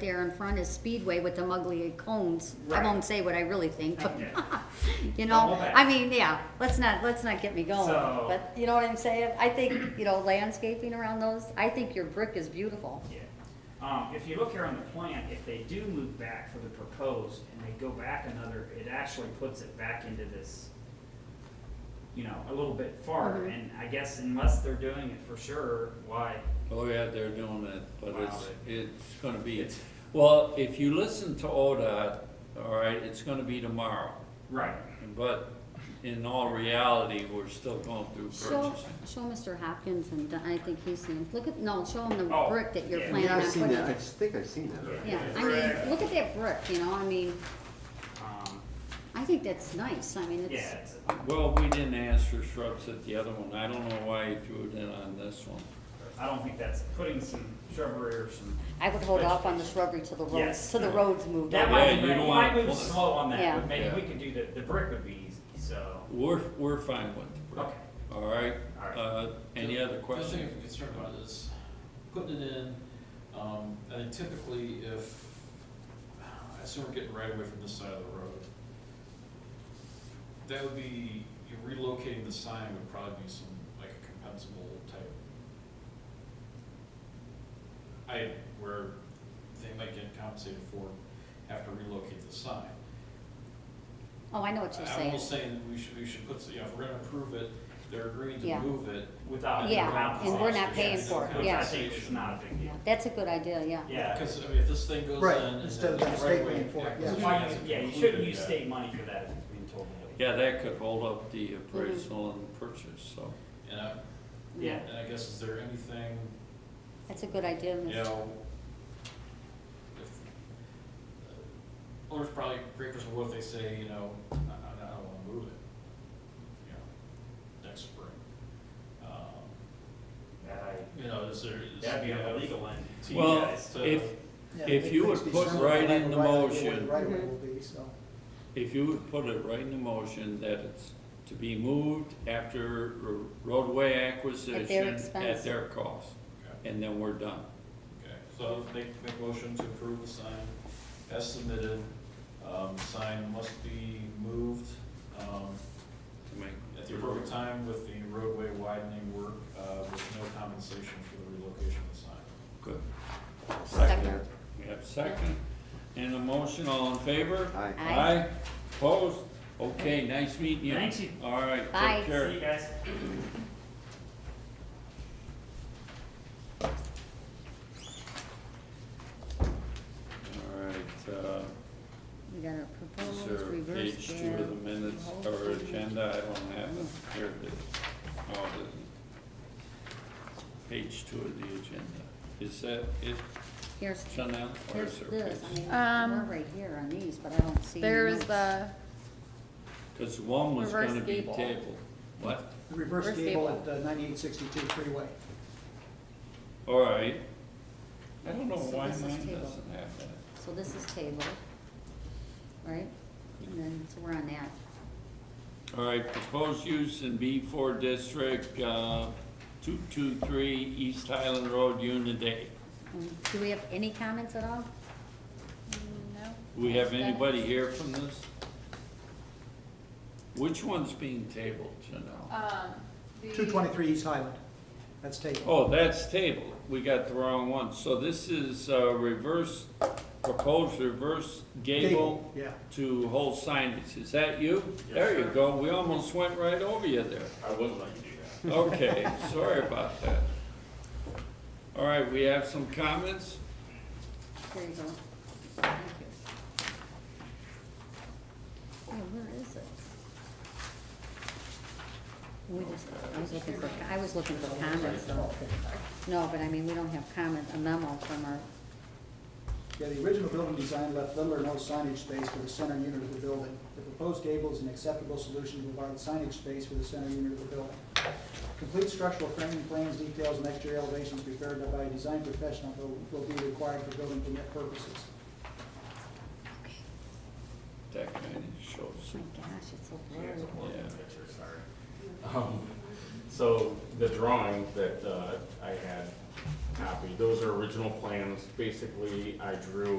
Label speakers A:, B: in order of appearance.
A: there in front is Speedway with the ugly cones. I
B: Right.
A: won't say what I really think, but,
B: Yeah.
A: you
B: Double
A: know,
B: back.
A: I mean, yeah, let's not, let's not get me going.
B: So-
A: But you know what I'm saying? I think, you know, landscaping around those, I think your brick is beautiful.
B: Yeah. Um, if you look here on the plan, if they do move back for the proposed and they go back another, it actually puts it back into this, you know, a little bit farther,
A: Mhm.
B: and I guess unless they're doing it for sure, why?
C: Oh, yeah, they're doing it, but it's,
B: Wow.
C: it's gonna be,
B: It's-
C: well, if you listen to ODOT, all right, it's gonna be tomorrow.
B: Right.
C: But in all reality, we're still going through
A: Show,
C: purchasing.
A: show Mr. Hopkins and Don- I think he's seen, look at, no, show him the
B: Oh,
A: brick that you're
B: yeah.
A: planning
D: Yeah,
A: on
D: I've
A: putting.
D: seen that, I think I've seen that already.
A: Yeah, I
B: Brick.
A: mean, look at that brick, you know, I mean,
B: Um,
A: I think that's nice, I mean, it's,
B: yeah, it's,
C: Well, we didn't ask for shrubs at the other one, I don't know why you threw it in on this one.
B: I don't think that's putting some shrubbery or some,
A: I would hold off on the shrubbery till the roads,
B: Yes.
A: till the roads moved
B: that
A: up.
B: might,
C: Yeah, you
B: be-
C: don't
B: we might
C: want-
B: move slow on
A: Yeah.
B: that, but maybe
C: Yeah.
B: we could do the, the brick would be easy, so,
C: We're, we're fine with the brick,
B: okay.
C: all right?
B: All right.
C: Uh, any other
E: The thing
C: questions?
E: I'm concerned about is putting it in, um, I think typically if, I assume we're getting right away from this side of the road. That would be, you relocating the sign would probably be some, like a compensable type item where they might get compensated for, have to relocate the sign.
A: Oh, I know what you're
E: I'm
A: saying.
E: almost saying we should, we should put, you know, if we're gonna approve it, they're agreeing
A: Yeah.
E: to move it,
B: Without.
A: Yeah,
B: without
A: and we're not
B: compensation.
A: paying
B: Yes,
A: for it,
B: which
A: yeah.
B: I think is not a big deal.
A: Yeah, That's a good idea, yeah.
B: Yeah.
E: Because, I mean, if this thing goes in.
F: Right,
E: and
F: instead of
E: then
F: the
E: right
F: state
E: away-
F: paying for it,
B: So
F: yeah.
B: why is- Yeah, you shouldn't use state money for that if it's being told. to
C: Yeah, that could hold up the appraisal and purchase, so.
E: And I,
B: Yeah.
E: and I guess, is there anything,
A: That's a good idea,
E: you
A: Mr.
E: know, if, owner's probably great for what if they say, you know, I, I I don't wanna move it, you know, next spring. Um,
B: That
E: You know, is there? is-
B: I- That'd be
E: you know,
B: illegal and to you
C: Well,
B: guys.
E: so-
C: if,
F: Yeah,
C: If
F: it
C: you
F: needs
C: would
F: to be
C: put
F: determined
C: right
F: by the
C: in the
F: right-of-way,
C: motion-
F: Right-of-way will be, so.
C: If you would put it right in the motion that it's to be moved after roadway acquisition
A: expense.
C: at their cost,
E: Okay.
C: and then we're done.
E: Okay, so make, make a motion to approve the sign as submitted. Um, sign must be moved, um,
C: to make-
E: at the appropriate time with the roadway widening work, uh, with no compensation for the relocation of the sign.
C: Good.
A: Second.
C: We have a second. And a motion, all in favor?
D: Aye.
A: Aye.
C: Opposed? Okay, nice meeting you.
B: Thank you.
C: All right,
A: Bye.
C: take
B: See
C: care.
B: you guys.
C: All right, uh,
A: We got a
C: is
A: proposed
C: there
A: reverse
C: page two of the
A: gear.
C: minutes or
A: Reverse gear.
C: agenda? I don't have it. Here it is. Oh, it isn't. Page two of the agenda. Is that it,
A: Here's,
C: Chanel, or
A: here's
C: is there a
A: this,
C: page?
A: I
G: Um,
A: mean, we're right here on these, but I don't see.
G: There
A: any
G: is
A: notes.
G: the,
C: Cause one was
G: Reverse
C: gonna be
G: gable.
C: tabled. What?
F: The reverse
G: Reverse
F: gable at
G: gable.
F: uh, 9862 freeway.
C: All right. I don't know
A: So
C: why
A: this is
C: mine
A: tabled.
C: doesn't have that.
A: So this is tabled, right? And then, so we're on that.
C: All right, proposed use in B four district, uh, two-two-three East Highland Road, Unit A.
A: Mm, Do we have any comments at all?
G: no.
C: Do we have anybody here from this? Which one's being tabled, Janelle?
G: Um, the.
F: 223 East Highland, that's taken.
C: Oh, that's tabled, we got the wrong one. So this is, uh, reverse, proposed reverse gable
F: Yeah.
C: to whole signage, is that you? There you go, we almost went right over you there.
H: I wouldn't let you do that.
C: Okay, sorry about that. All right, we have some comments?
A: There you go. Thank you. Yeah, where is it? We just, I was looking for, I was looking for comments. though. No, but I mean, we don't have comment, a memo from our,
F: Yeah, the original building design left little or no signage space for the center unit of the building. The proposed gable is an acceptable solution to provide signage space for the center unit of the building. Complete structural framing plans, details, and exterior elevations prepared by a design professional will- will be required for building permit purposes.
C: That kind of shows,
A: oh my gosh, it's so
H: Yeah, it's a
A: blurry.
H: horrible
C: Yeah.
H: picture, sorry. Um, So the drawing that uh, I had copy. Those are original plans. Basically, I drew